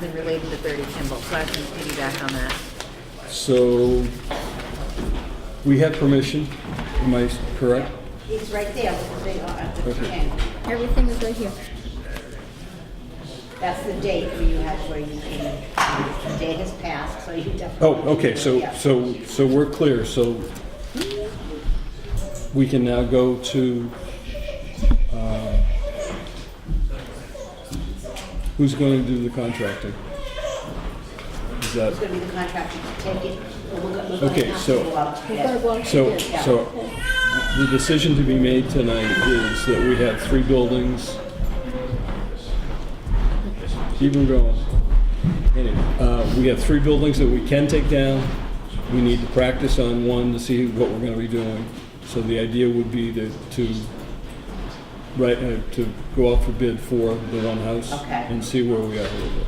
something related to 30 Kimball, so I can piggyback on that. So we have permission, am I correct? It's right there with the big, uh, with the Okay. pen. Everything is right here. That's the date where you had, where you came. The date has passed, so you definitely. Oh, okay, so, Yeah. so, so we're clear, so we can now go to, uh, who's going to do the contracting? Is It's that, gonna be the contractor to take it, but we're gonna, we're gonna Okay, have to so- go out We've got to together. walk so, through. so the decision to be made tonight is that we have three buildings. Keep 'em going. Anyway, uh, we have three buildings that we can take down. We need to practice on one to see what we're gonna be doing. So the idea would be to, to, right, uh, to go out for bid for the one house. Okay. And see where we are a little bit,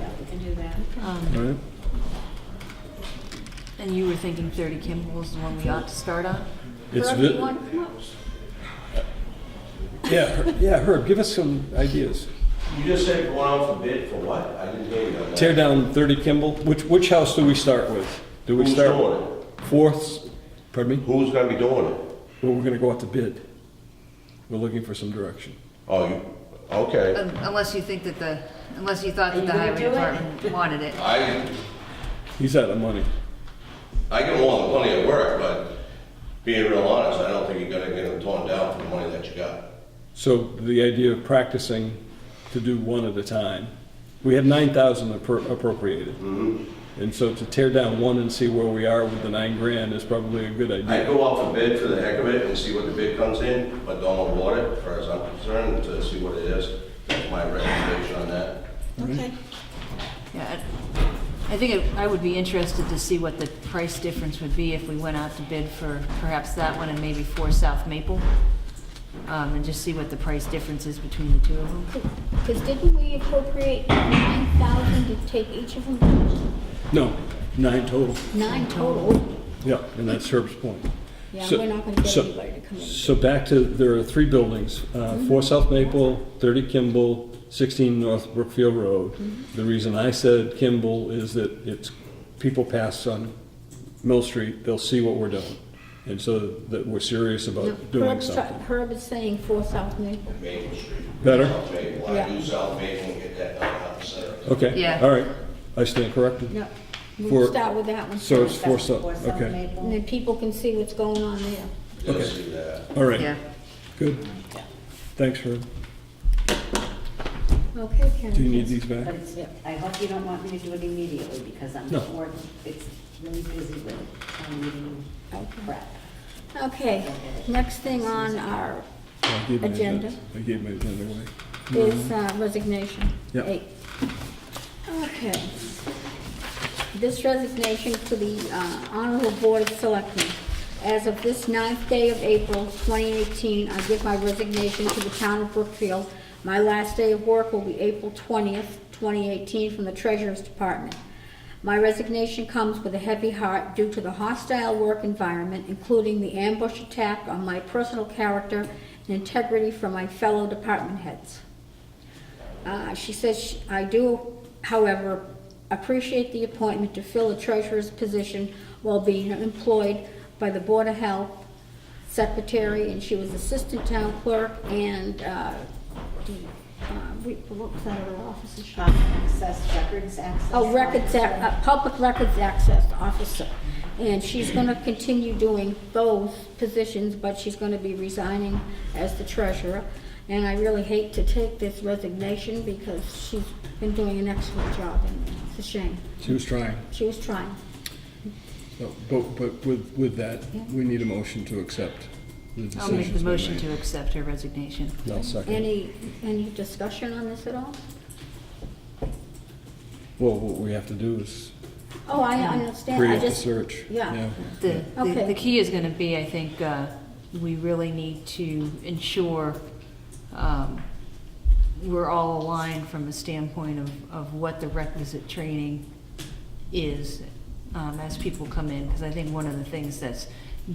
Yeah, we can do that. all right? And you were thinking 30 Kimball is the one we ought to start on? It's Herb, vi- you wanna come up? Yeah, Her- yeah, Herb, give us some ideas. You just said going out for bid for what? I didn't hear you on that. Tear down 30 Kimball, which, which house do we start with? Do we Who's start? doing it? Fourth, pardon me, Who's gonna be doing it? well, we're gonna go out to bid. We're looking for some direction. Oh, you, okay. Um, Unless you think that the, unless you thought Are you that the gonna highway do it? department wanted it. I, He's out of money. I get more than plenty of work, but being real honest, I don't think you're gonna get them torn down for the money that you got. So the idea of practicing to do one at a time, we had 9,000 appro- appropriated. Mm-hmm. And so to tear down one and see where we are with the nine grand is probably a good I idea. go out for bid for the heck of it and see what the bid comes in, but don't award it, as far as I'm concerned, to see what it is. That's my recommendation on that. Okay. Yeah, I I think it- I would be interested to see what the price difference would be if we went out to bid for perhaps that one and maybe for South Maple. Um, And just see what the price difference is between the two of them. Because didn't we appropriate nine thousand to take each of them? No, nine total. Nine total. Yeah, and that's Herb's point. Yeah, So- we're not gonna get so- anybody to come in. Mm-hmm. So back to, there are three buildings, uh, 4 South Maple, 30 Kimball, 16 North Brookfield Road. Mm-hmm. The reason I said Kimball is that it's, people pass on Mill Street, they'll see what we're doing. And so that we're serious about doing Herb's try- something. Herb is saying four South Maple. Maple Street. Better? South Maple, I do South Maple and get that done out the center. Okay. Yeah. All right, I stand corrected. No, For- we'll start with that one. So it's first, 4 That's South, before South okay. Maple. And then people can see what's going on there. Okay. Just see that. All Yeah. right, good. Thanks, Herb. Okay, Karen. Do you need these back? But it's, I hope you don't want me to do it immediately, because I'm No. working, it's really busy with town meeting prep. Okay, next thing on our I gave my Agenda. I gave my agenda away. is uh, resignation. Yep. Eight. Okay. This resignation to the uh, Honorable Board of Selectmen. As of this ninth day of April 2018, I give my resignation to the town of Brookfield. My last day of work will be April 20th, 2018, from the Treasurer's Department. My resignation comes with a heavy heart due to the hostile work environment, including the ambush attack on my personal character and integrity from my fellow department heads. Uh, She says, she- "I do, however, appreciate the appointment to fill a treasurer's position while being employed by the Board of Health Secretary," and she was Assistant Town Clerk and, uh, the, uh, we- what was that other office? that she- Um, Access, records access. Oh, records, ac- uh, Public Records Access Officer. And she's going to continue doing those positions, but she's going to be resigning as the treasurer. And I really hate to take this resignation because she's been doing an excellent job, and it's a shame. She was trying. She was trying. So, But, but with, with that, we need a motion to accept the decisions. I'll make the we motion made. to accept her resignation. I'll second. it. Any, any discussion on this at all? Well, what we have to do is Oh, I understand, I create the just, search. yeah. The, the Okay. the key is going to be, I think, uh, we really need to ensure um, we're all aligned from a standpoint of, of what the requisite training is um, as people come in. Because I think one of the things that's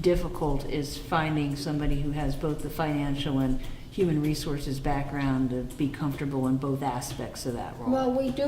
difficult is finding somebody who has both the financial and human resources background to be comfortable in both aspects of that role. well, we do